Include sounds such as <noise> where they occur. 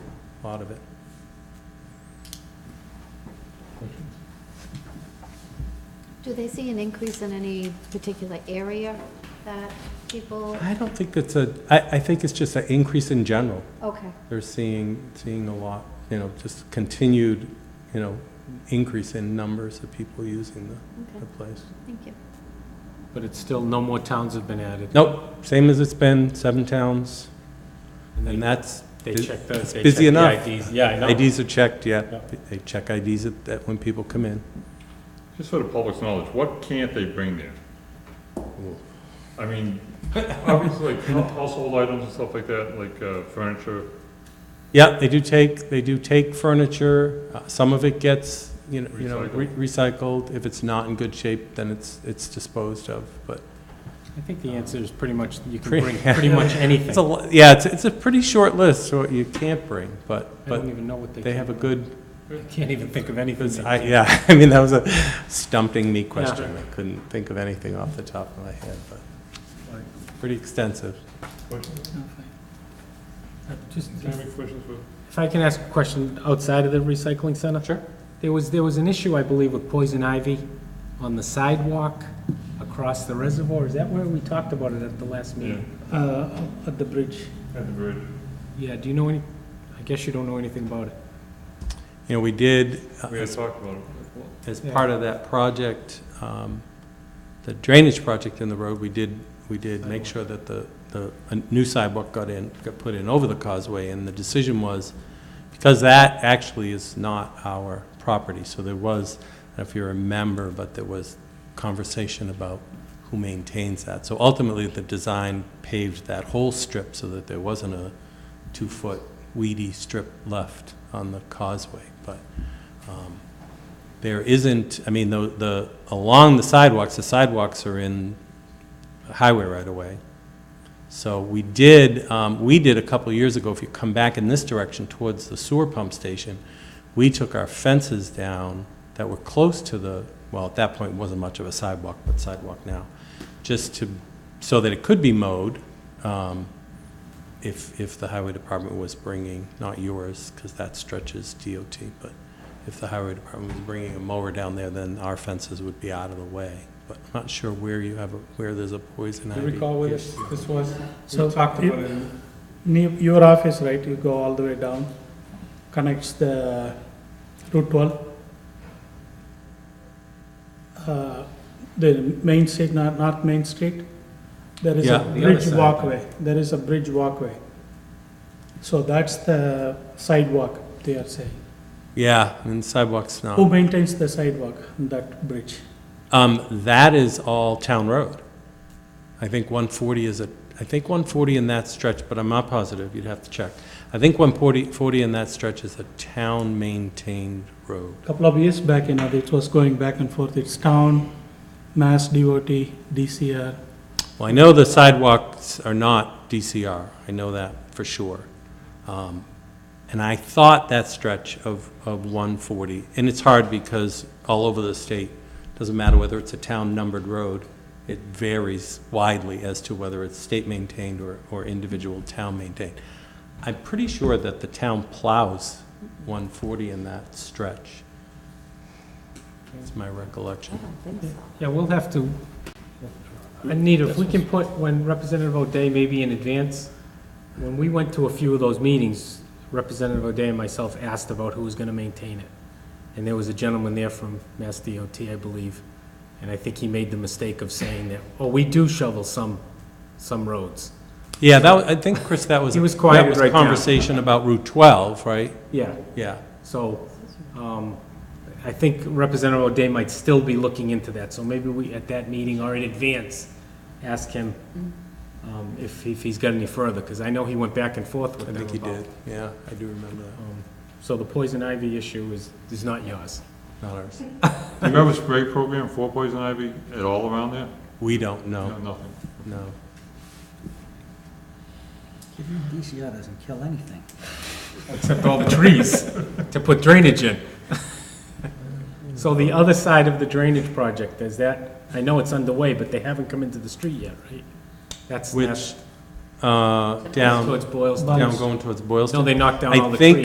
a lot of it. Do they see an increase in any particular area that people, I don't think that's a, I, I think it's just an increase in general. okay, They're seeing, seeing a lot, you know, just continued, you know, increase in numbers of people using the, the okay, place. thank you. But it's still, no more towns have been added. Nope, same as it's been, seven towns, And and they- that's, They check the, they busy check enough. the IDs. Yeah, I know. IDs are checked, yeah. Yeah. They check IDs at, at when people come in. Just for the public's knowledge, what can't they bring there? I mean, obviously, like household items and stuff like that, like uh, furniture. Yeah, they do take, they do take furniture, uh, some of it gets, you know, you know, re- Recycled. recycled. If it's not in good shape, then it's, it's disposed of, but I think the answer is pretty much, you can Pretty- <laughs> bring pretty much It's a, anything. lo- yeah, it's, it's a pretty short list, so you can't bring, but, I don't but even know what they. they can have a bring. good, I <laughs> can't even think of anything. because they I, can- yeah, <laughs> I mean, that was a stumping me question. I couldn't think of anything off the top of my head, but pretty extensive. Questions? No, fine. Uh, Just, Any questions for? if I can ask a question outside of the recycling center? Sure. There was, there was an issue, I believe, with poison ivy on the sidewalk across the reservoir. Is that where we talked about it at the last meeting? Uh, at the bridge. At the bridge. Yeah, do you know any, I guess you don't know anything about it. You know, we did, uh, We had as, talked about it. as Yeah. part of that project, um, the drainage project in the road, we did, we did make Sidewalk. sure that the, the, a new sidewalk got in, got put in over the causeway, and the decision was, because that actually is not our property, so there was, I don't know if you remember, but there was conversation about who maintains that. So ultimately, the design paved that whole strip so that there wasn't a two-foot weedy strip left on the causeway, but, um, there isn't, I mean, the, the, along the sidewalks, the sidewalks are in highway right away. So we did, um, we did a couple of years ago, if you come back in this direction towards the sewer pump station, we took our fences down that were close to the, well, at that point, it wasn't much of a sidewalk, but sidewalk now, just to, so that it could be mowed, um, if, if the highway department was bringing, not yours, because that stretches DOT, but if the highway department was bringing a mower down there, then our fences would be out of the way. But I'm not sure where you have, a where there's a poison Do ivy. you recall where issue. this, this was? So We talked it- about it. Near your office, right, you go all the way down, connects the Route 12. Uh, The Main Street, Nor- North Main Street, there is a Yeah. The other bridge side. walkway, there is a bridge walkway. So that's the sidewalk, they are saying. Yeah, and sidewalks Who Uh-huh. not. maintains the sidewalk, on that bridge? Um, that is all town road. I think one forty is a, I think one forty in that stretch, but I'm not positive, you'd have to check. I think 140 40 in that stretch is a town-maintained road. Couple of years back, you know, it was going back and forth, it's town, Mass DOT, DCR. Well, I know the sidewalks are not DCR, I know that for sure. Um, And I thought that stretch of, of 140, and it's hard because all over the state, doesn't matter whether it's a town-numbered road, it varies widely as to whether it's state-maintained or, or individual town-maintained. I'm pretty sure that the town plows 140 in that stretch. That's my recollection. Yeah, we'll have to, Anita, if we can put, when Representative O'Day, maybe in advance, when we went to a few of those meetings, Representative O'Day and myself asked about who was gonna maintain it. And there was a gentleman there from Mass DOT, I believe, and I think he made the mistake of saying that, oh, we do shovel some, some roads. Yeah, that, wa- I think, Chris, that was. He was quieted That was right a down. conversation about Route 12, right? Yeah, Yeah. so, um, I think Representative O'Day might still be looking into that, so maybe we, at that meeting or in advance, ask him, um, if, if he's got any further, because I know he went back and forth I with them think he about- did. Yeah, I do remember that. um, So the poison ivy issue is, is not yours. Not ours. Do you remember spray program for poison ivy at all around there? We don't know, No, Nothing. no. DCR doesn't kill anything. <laughs> Except <laughs> all the trees to put drainage in. <laughs> So the other side of the drainage project, is that, I know it's underway, but they haven't come into the street yet, right? That's, Which, that's uh, that's down, towards Boylston. down going towards No, Boylston. they knocked down all I the think trees.